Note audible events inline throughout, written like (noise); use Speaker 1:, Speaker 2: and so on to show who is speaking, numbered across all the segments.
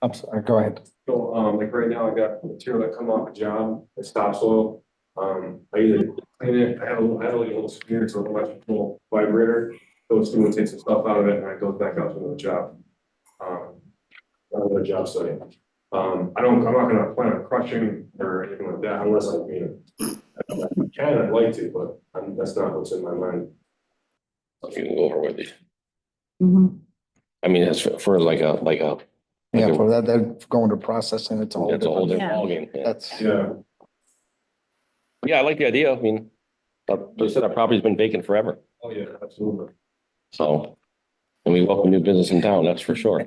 Speaker 1: I'm sorry, go ahead.
Speaker 2: So, um, like right now, I got material that come off a job, it's topsoil. Um, I either clean it, I have a little, I have a little smear, it's an electrical vibrator. Goes through and takes the stuff out of it and it goes back out to another job. Um, another job site. Um, I don't, I'm not gonna plan on crushing or anything like that unless I mean. I Can, I'd like to, but um, that's not what's in my mind.
Speaker 3: if you can go over with it.
Speaker 4: Mhm.
Speaker 3: I mean, that's for- for like a, like a,
Speaker 1: Yeah,
Speaker 3: Okay.
Speaker 1: for that, that going to processing, it's a whole
Speaker 3: that's a whole
Speaker 1: different.
Speaker 3: different
Speaker 4: Yeah.
Speaker 3: ballgame. yeah.
Speaker 1: That's,
Speaker 2: Yeah,
Speaker 3: Yeah, I like the idea. I mean, but they said our property's been vacant forever,
Speaker 2: oh yeah, absolutely.
Speaker 3: so. And we welcome new business in town, that's for sure.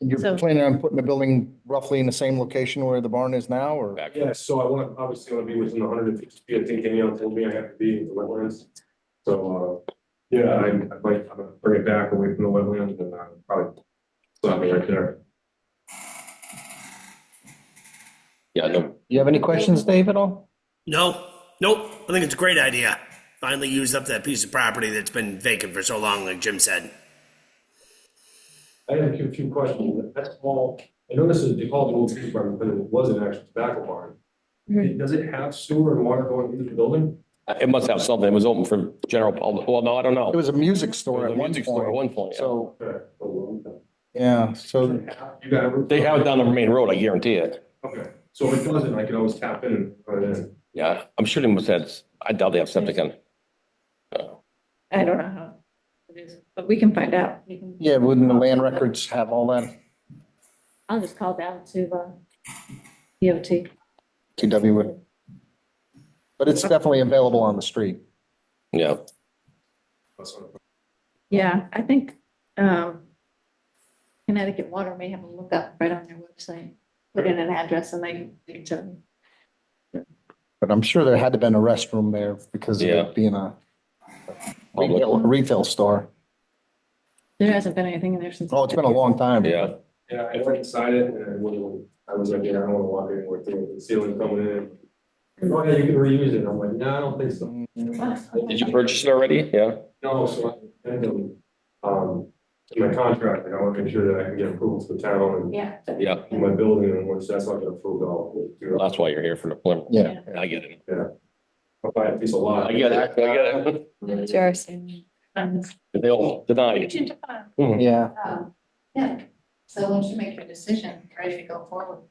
Speaker 1: you're
Speaker 4: So-
Speaker 1: planning on putting the building roughly in the same location where the barn is now or?
Speaker 3: Back.
Speaker 2: Yeah, so I want, obviously want to be within the hundred and fifty feet, I think, anyone told me I have to be in the wetlands. So, uh, yeah, I, I might, I'm gonna bring it back away from the wetlands and uh, probably stop me right there.
Speaker 3: Yeah, no,
Speaker 1: You have any questions, Dave, at all?
Speaker 5: No, nope. I think it's a great idea. Finally used up that piece of property that's been vacant for so long, like Jim said.
Speaker 2: I have a few, few questions, that's all, I know this is, they call it an old tree farm, but it was an actual tobacco barn.
Speaker 4: Mhm.
Speaker 2: Does it have sewer and water going into the building?
Speaker 3: it must have something. It was open for general public. Well, no, I don't know.
Speaker 1: It was a music
Speaker 3: It
Speaker 1: store
Speaker 3: was
Speaker 1: at
Speaker 3: a
Speaker 1: one
Speaker 3: music store At
Speaker 1: point.
Speaker 3: one point, yeah.
Speaker 1: So,
Speaker 2: Okay.
Speaker 1: yeah, so
Speaker 2: You got it?
Speaker 3: They have it down the main road, I guarantee it.
Speaker 2: Okay, so if it doesn't, I can always tap in and put it in.
Speaker 3: Yeah, I'm sure they must have, I doubt they have septic in.
Speaker 4: I don't know how it is, but we can find out. We can-
Speaker 1: Yeah, wouldn't the land records have all that?
Speaker 4: I'll just call down to uh, DOT.
Speaker 1: TW would. But it's definitely available on the street.
Speaker 3: Yeah,
Speaker 2: That's what I'm-
Speaker 4: Yeah, I think um, Connecticut Water may have a lookup right on their website. Put in an address and they, they tell you.
Speaker 1: But I'm sure there had to been a restroom there because of
Speaker 3: Yeah.
Speaker 1: it being a
Speaker 3: Public.
Speaker 1: retail, retail store.
Speaker 4: There hasn't been anything in there since.
Speaker 1: Oh, it's been a long time.
Speaker 3: yeah.
Speaker 2: Yeah, I went inside it and I wouldn't, I was like, yeah, I don't wanna walk anywhere through it, the ceiling coming in. Oh, yeah, you can reuse it. I'm like, no, I don't think so.
Speaker 3: Did you purchase it already? Yeah.
Speaker 2: No, so I, and, then, um, in my contract, like, I wanna make sure that I can get approval for the town
Speaker 4: Yeah.
Speaker 3: Yeah.
Speaker 2: and my building, and once that's not gonna approve, I'll do it.
Speaker 3: That's why you're here for the plan.
Speaker 1: Yeah.
Speaker 3: I get it.
Speaker 2: I'll buy a piece of lot.
Speaker 3: I get it. I get it.
Speaker 4: Um,
Speaker 3: They all deny it.
Speaker 4: agent, uh,
Speaker 1: Yeah.
Speaker 4: um, Yeah, so once you make your decision, try to go forward.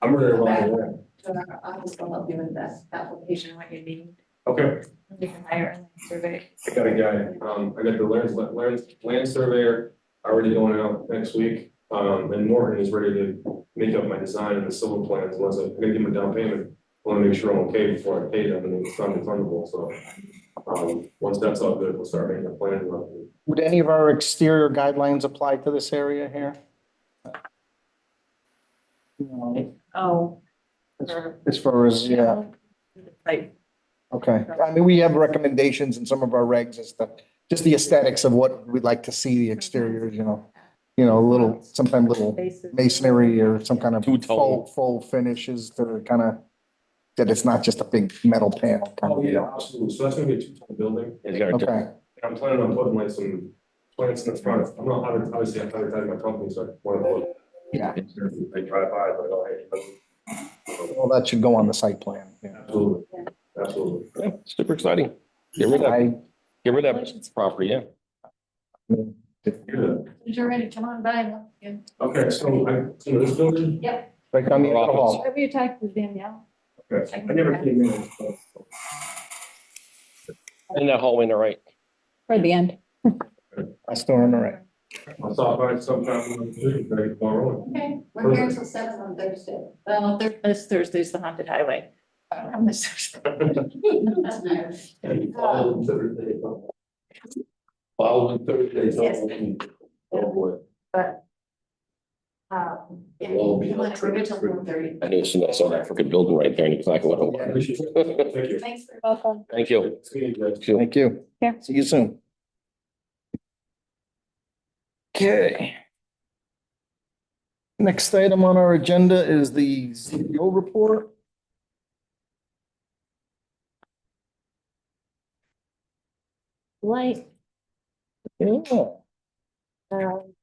Speaker 2: I'm ready to roll.
Speaker 4: So our office will help you with that application, what you need.
Speaker 2: Okay,
Speaker 4: You can hire a land survey.
Speaker 2: I got a guy, um, I got the land, land, land surveyor already going out next week. Um, and Morton is ready to make up my design and the civil plans, unless I, I'm gonna give him a down payment. I Wanna make sure I'm okay before I pay them, and it's not refundable, so. Um, once that's all good, we'll start making the plans.
Speaker 1: Would any of our exterior guidelines apply to this area here? No.
Speaker 4: Oh.
Speaker 1: As far as, yeah,
Speaker 4: Like,
Speaker 1: okay. I mean, we have recommendations in some of our regs as to just the aesthetics of what we'd like to see the exterior, you know. You know, a little, sometimes little
Speaker 4: bases.
Speaker 1: masonry or some kind of
Speaker 3: Two-tone.
Speaker 1: full, full finishes that are kind of, that it's not just a big metal panel kind
Speaker 2: Oh,
Speaker 1: of
Speaker 2: yeah,
Speaker 1: deal.
Speaker 2: absolutely. So that's gonna be a two-ton building.
Speaker 3: It's got a different-
Speaker 1: Okay,
Speaker 2: And I'm planning on putting like some plants in the front. I'm not, adver- obviously, I'm advertising my company, so I wanna look.
Speaker 1: yeah,
Speaker 2: They drive by, but I don't, hate
Speaker 1: well, that should go on the site plan,
Speaker 2: them.
Speaker 1: yeah.
Speaker 2: Absolutely, absolutely.
Speaker 3: Yeah, super exciting. Get rid of that,
Speaker 1: I-
Speaker 3: get rid of that property, yeah.
Speaker 2: Good.
Speaker 4: You're ready, come on by. look, yeah.
Speaker 2: Okay, so I, so this building,
Speaker 1: Right down the end of the hall.
Speaker 4: Whatever you talked with Danielle.
Speaker 2: okay, I never came in. so-
Speaker 3: In that hallway, on the right.
Speaker 6: For the end.
Speaker 1: I still remember it.
Speaker 2: I saw by sometime when I was doing it, like, tomorrow.
Speaker 4: Okay,
Speaker 2: we're here
Speaker 4: until seven on Thursday. Well, Thur- this Thursday's the haunted highway. On this (laughs) Thursday.
Speaker 2: And following Thursday. Following Thursday. so- Oh, boy.
Speaker 4: But. Um, yeah,
Speaker 3: Well, we
Speaker 4: you want
Speaker 3: don't
Speaker 4: to till one thirty.
Speaker 3: I knew as soon as I saw that freaking building right there and exactly what
Speaker 2: Yeah,
Speaker 3: it
Speaker 2: we should-
Speaker 3: was.
Speaker 2: Thank you.
Speaker 4: Thanks for.
Speaker 6: Welcome.
Speaker 2: (laughs)
Speaker 3: Thank you.
Speaker 2: See you guys.
Speaker 3: Thank you.
Speaker 1: Thank you.
Speaker 6: Yeah.
Speaker 1: See you soon. Okay. Next item on our agenda is the CEO report.
Speaker 6: Light.
Speaker 1: Yeah.
Speaker 4: uh,
Speaker 6: um,